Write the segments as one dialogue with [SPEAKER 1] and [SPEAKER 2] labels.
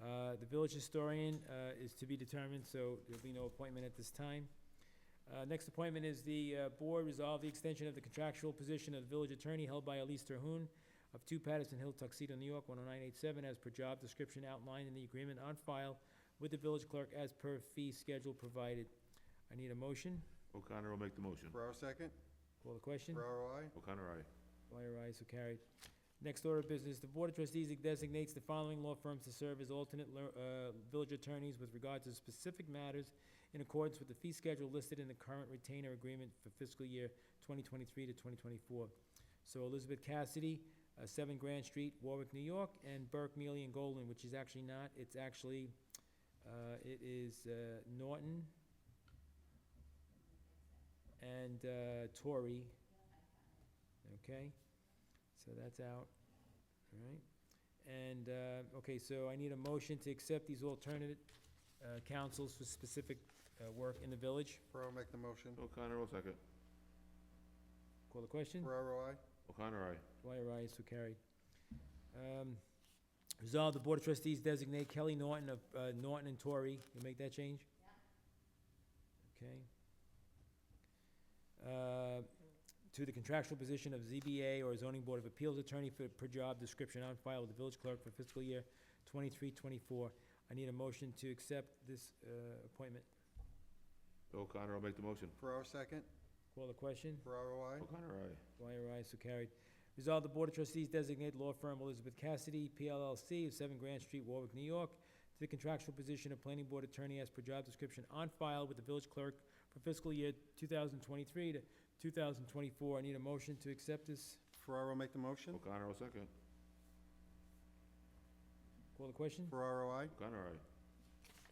[SPEAKER 1] Uh, Village historian uh, is to be determined, so there'll be no appointment at this time. Uh, Next appointment is the uh, board resolve the extension of the contractual position of village attorney held by Elise Terhune of 2 Patterson Hill, Tuxedo, New York, 10987, as per job description outlined in the agreement on file with the village clerk as per fee schedule provided. I need a motion.
[SPEAKER 2] O'Connor will make the motion.
[SPEAKER 3] Ferraro second?
[SPEAKER 1] Call the question.
[SPEAKER 3] Ferraro, I?
[SPEAKER 2] O'Connor, aye.
[SPEAKER 1] Dwyer, ayes so carried. Next order of business, the Board of Trustees designates the following law firms to serve as alternate lear- uh, village attorneys with regard to specific matters in accordance with the fee schedule listed in the current retainer agreement for fiscal year 2023 to 2024. So Elizabeth Cassidy, uh, 7 Grand Street, Warwick, New York, and Burke, Mealy, and Golden, which is actually not, it's actually, uh, it is uh, Norton and uh, Torrey. Okay? So that's out, all right? And, uh, okay, so I need a motion to accept these alternate uh, councils for specific uh, work in the village.
[SPEAKER 3] Ferraro make the motion.
[SPEAKER 2] O'Connor will second.
[SPEAKER 1] Call the question?
[SPEAKER 3] Ferraro, I?
[SPEAKER 2] O'Connor, aye.
[SPEAKER 1] Dwyer, aye, so carried. Um, Resolve the Board of Trustees designate Kelly Norton of, uh, Norton and Torrey, you make that change? Okay. Uh, To the contractual position of ZBA or zoning board of appeals attorney for, per job description on file with the village clerk for fiscal year twenty-three, twenty-four. I need a motion to accept this, uh, appointment.
[SPEAKER 2] O'Connor will make the motion.
[SPEAKER 3] Ferraro second?
[SPEAKER 1] Call the question?
[SPEAKER 3] Ferraro, I?
[SPEAKER 2] O'Connor, aye.
[SPEAKER 1] Dwyer, aye, so carried. Resolve the Board of Trustees designate law firm Elizabeth Cassidy, PLLC, of 7 Grand Street, Warwick, New York, to the contractual position of planning board attorney as per job description on file with the village clerk for fiscal year 2023 to 2024. I need a motion to accept this.
[SPEAKER 3] Ferraro make the motion?
[SPEAKER 2] O'Connor will second.
[SPEAKER 1] Call the question?
[SPEAKER 3] Ferraro, I?
[SPEAKER 2] O'Connor, aye.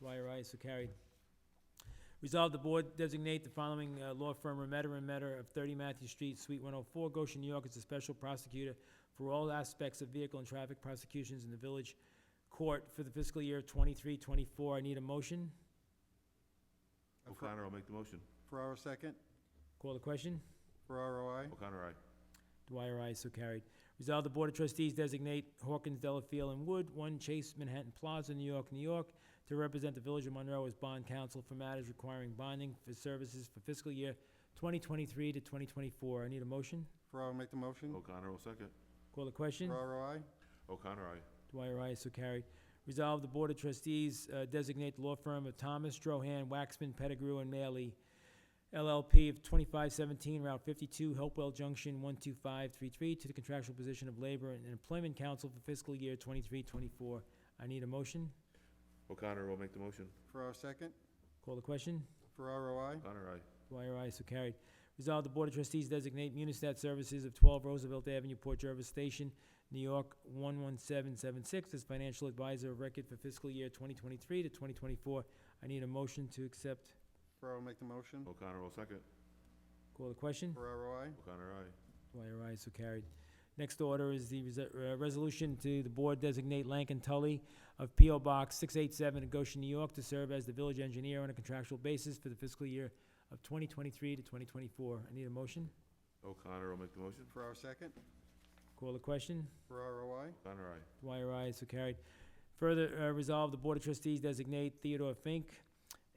[SPEAKER 1] Dwyer, aye, so carried. Resolve the board designate the following uh, law firm, Remetter and Metter of 30 Matthew Street, Suite 104, Goshen, New York, as a special prosecutor for all aspects of vehicle and traffic prosecutions in the village court for the fiscal year 23-24. I need a motion.
[SPEAKER 3] Uh, Fer-
[SPEAKER 2] O'Connor will make the motion.
[SPEAKER 3] Ferraro second?
[SPEAKER 1] Call the question.
[SPEAKER 3] Ferraro, I?
[SPEAKER 2] O'Connor, aye.
[SPEAKER 1] Dwyer, aye, so carried. Resolve the Board of Trustees designate Hawkins, Delafield, and Wood, 1 Chase Manhattan Plaza, New York, New York, to represent the Village of Monroe as bond counsel for matters requiring bonding for services for fiscal year 2023 to 2024. I need a motion.
[SPEAKER 3] Ferraro make the motion?
[SPEAKER 2] O'Connor will second.
[SPEAKER 1] Call the question.
[SPEAKER 3] Ferraro, I?
[SPEAKER 2] O'Connor, aye.
[SPEAKER 1] Dwyer, aye, so carried. Resolve the Board of Trustees uh, designate the law firm of Thomas, Drohan, Waxman, Pettigrew, and Maley, LLP of 2517 Route 52, Hopewell Junction, 12533, to the contractual position of Labor and Employment Council for fiscal year 2324. I need a motion.
[SPEAKER 2] O'Connor will make the motion.
[SPEAKER 3] Ferraro second?
[SPEAKER 1] Call the question.
[SPEAKER 3] Ferraro, I?
[SPEAKER 2] O'Connor, aye.
[SPEAKER 1] Dwyer, aye, so carried. Resolved, the Board of Trustees designate Munistat Services of 12 Roosevelt Avenue, Port Jervis Station, New York 11776 as financial advisor of record for fiscal year 2023 to 2024. I need a motion to accept.
[SPEAKER 3] Ferraro make the motion?
[SPEAKER 2] O'Connor will second.
[SPEAKER 1] Call the question.
[SPEAKER 3] Ferraro, I?
[SPEAKER 2] O'Connor, aye.
[SPEAKER 1] Dwyer, aye, so carried. Next order is the rese- uh, resolution to the board designate Lankin Tully of P.O. Box 687 in Goshen, New York, to serve as the village engineer on a contractual basis for the fiscal year of 2023 to 2024. I need a motion.
[SPEAKER 2] O'Connor will make the motion.
[SPEAKER 3] Ferraro second?
[SPEAKER 1] Call the question.
[SPEAKER 3] Ferraro, I?
[SPEAKER 2] O'Connor, aye.
[SPEAKER 1] Dwyer, aye, so carried. Further, uh, resolve the Board of Trustees designate Theodore Fink,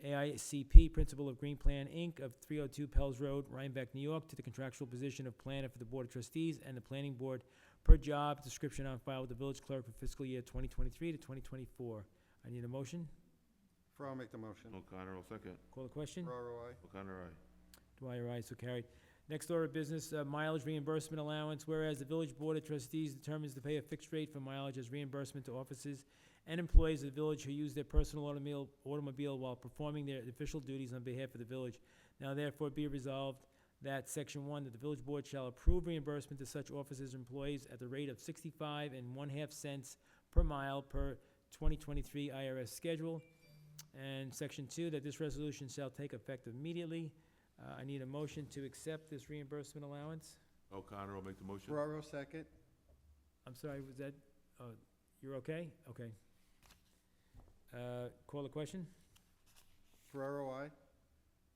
[SPEAKER 1] AICP, Principal of Green Plan, Inc., of 302 Pell's Road, Rhinebeck, New York, to the contractual position of planner for the Board of Trustees and the Planning Board per job description on file with the village clerk for fiscal year 2023 to 2024. I need a motion.
[SPEAKER 3] Ferraro make the motion?
[SPEAKER 2] O'Connor will second.
[SPEAKER 1] Call the question.
[SPEAKER 3] Ferraro, I?
[SPEAKER 2] O'Connor, aye.
[SPEAKER 1] Dwyer, aye, so carried. Next order of business, uh, mileage reimbursement allowance, whereas the village board of trustees determines to pay a fixed rate for mileage as reimbursement to offices and employees of the village who use their personal automobile, automobile while performing their official duties on behalf of the village. Now therefore be resolved that section one, that the village board shall approve reimbursement to such officers and employees at the rate of sixty-five and one-half cents per mile per twenty twenty-three IRS schedule. And section two, that this resolution shall take effect immediately. Uh, I need a motion to accept this reimbursement allowance.
[SPEAKER 2] O'Connor will make the motion.
[SPEAKER 3] Ferraro second?
[SPEAKER 1] I'm sorry, was that, uh, you're okay? Okay. Uh, call the question?
[SPEAKER 3] Ferraro, I?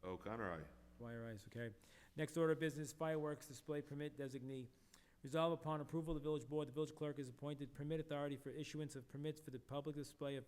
[SPEAKER 2] O'Connor, aye.
[SPEAKER 1] Dwyer, ayes so carried. Next order of business, fireworks display permit designee. Resolve upon approval of the village board, the village clerk is appointed permit authority for issuance of permits for the public display of